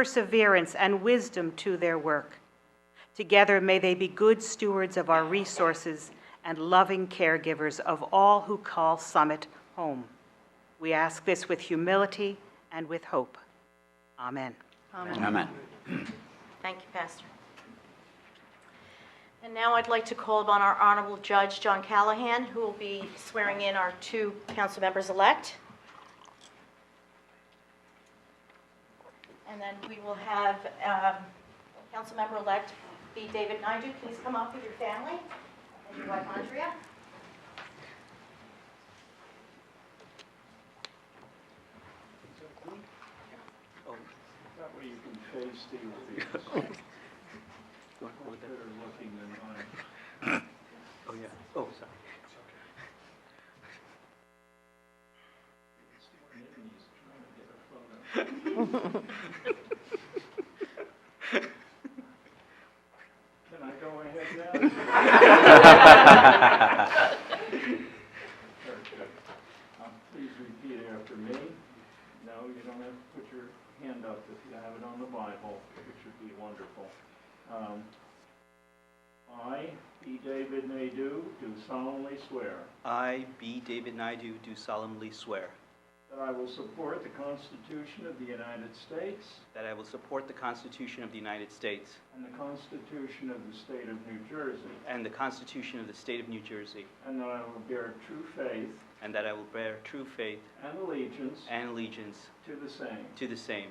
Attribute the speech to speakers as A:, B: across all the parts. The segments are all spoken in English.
A: perseverance, and wisdom to their work. Together, may they be good stewards of our resources and loving caregivers of all who call Summit home. We ask this with humility and with hope. Amen.
B: Amen.
C: Thank you, Pastor. And now I'd like to call upon our Honorable Judge John Callahan, who will be swearing in our two council members-elect. And then we will have um, council member-elect be David Naidu. Please come up with your family and your wife Andrea.
D: That way you can face the audience. Better looking than mine.
B: Oh, yeah. Oh, sorry.
D: He's trying to get a photo. Can I go ahead now? Very good. Um, Please repeat after me. No, you don't have to put your hand up if you have it on the Bible, which would be wonderful. Um, I, E. David Nadeau, do solemnly swear
B: I, B. David Naidu, do solemnly swear
D: that I will support the Constitution of the United States
B: that I will support the Constitution of the United States
D: and the Constitution of the State of New Jersey,
B: and the Constitution of the State of New Jersey,
D: and that I will bear true faith
B: and that I will bear true faith
D: and allegiance
B: and allegiance
D: to the same
B: to the same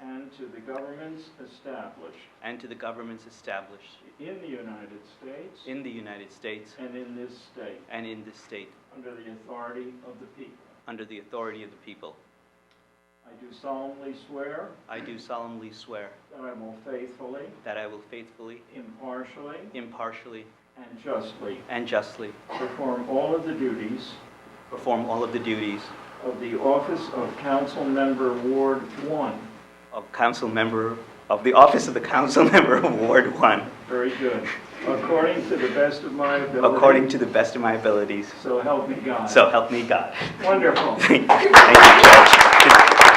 D: and to the governments established
B: and to the governments established
D: in the United States
B: in the United States
D: and in this state,
B: and in this state
D: under the authority of the people.
B: under the authority of the people.
D: I do solemnly swear
B: I do solemnly swear
D: that I will faithfully,
B: that I will faithfully,
D: impartially,
B: impartially,
D: and justly
B: and justly
D: perform all of the duties
B: perform all of the duties
D: of the office of Council Member Ward 1.
B: of council member, of the office of the council member of Ward 1,
D: Very good. According to the best of my ability.
B: according to the best of my abilities.
D: So help me God.
B: So help me God.
D: Wonderful.
B: Thank you.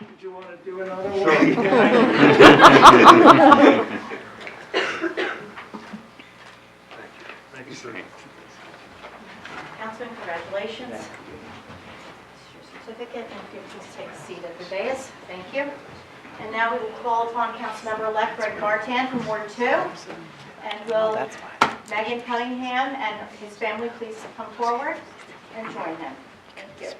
D: Did you want to do another one?
C: Councilman, congratulations. Here's your certificate, and if you please take a seat at the dais. Thank you. And now we will call upon Councilmember-elect Greg Bartan from Ward 2. And will Megan Cunningham and his family please come forward and join him? Thank you.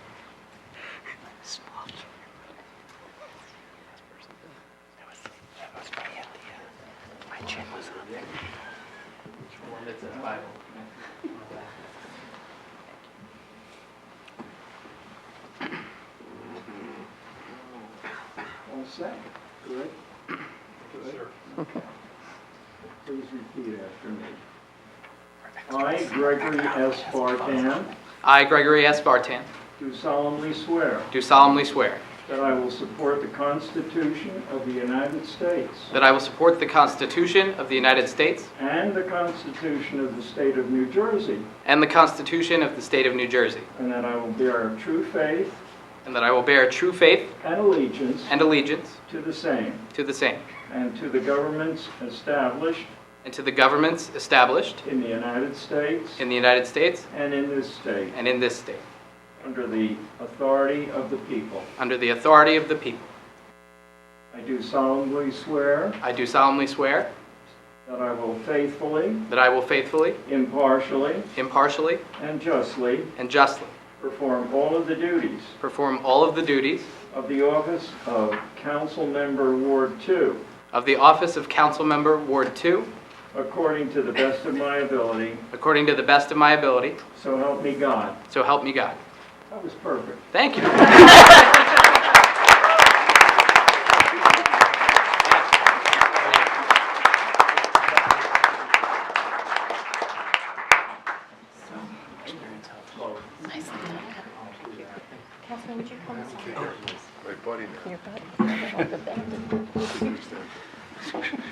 D: All set? Good? Good, sir. Please repeat after me. I, Gregory S. Bartan,
E: I, Gregory S. Bartan,
D: do solemnly swear
E: do solemnly swear
D: that I will support the Constitution of the United States
E: that I will support the Constitution of the United States
D: and the Constitution of the State of New Jersey,
E: and the Constitution of the State of New Jersey,
D: and that I will bear true faith
E: and that I will bear true faith
D: and allegiance
E: and allegiance
D: to the same
E: to the same,
D: and to the governments established
E: and to the governments established
D: in the United States
E: in the United States
D: and in this state,
E: and in this state,
D: under the authority of the people.
E: under the authority of the people.
D: I do solemnly swear
E: I do solemnly swear
D: that I will faithfully,
E: that I will faithfully,
D: impartially,
E: impartially,
D: and justly
E: and justly
D: perform all of the duties
E: perform all of the duties
D: of the office of Council Member Ward 2
E: of the office of Councilmember Ward 2
D: according to the best of my ability,
E: according to the best of my ability,
D: so help me God.
E: so help me God.
D: That was perfect.
E: Thank you.
C: Councilman, would you come this
F: My
C: way?
F: buddy now.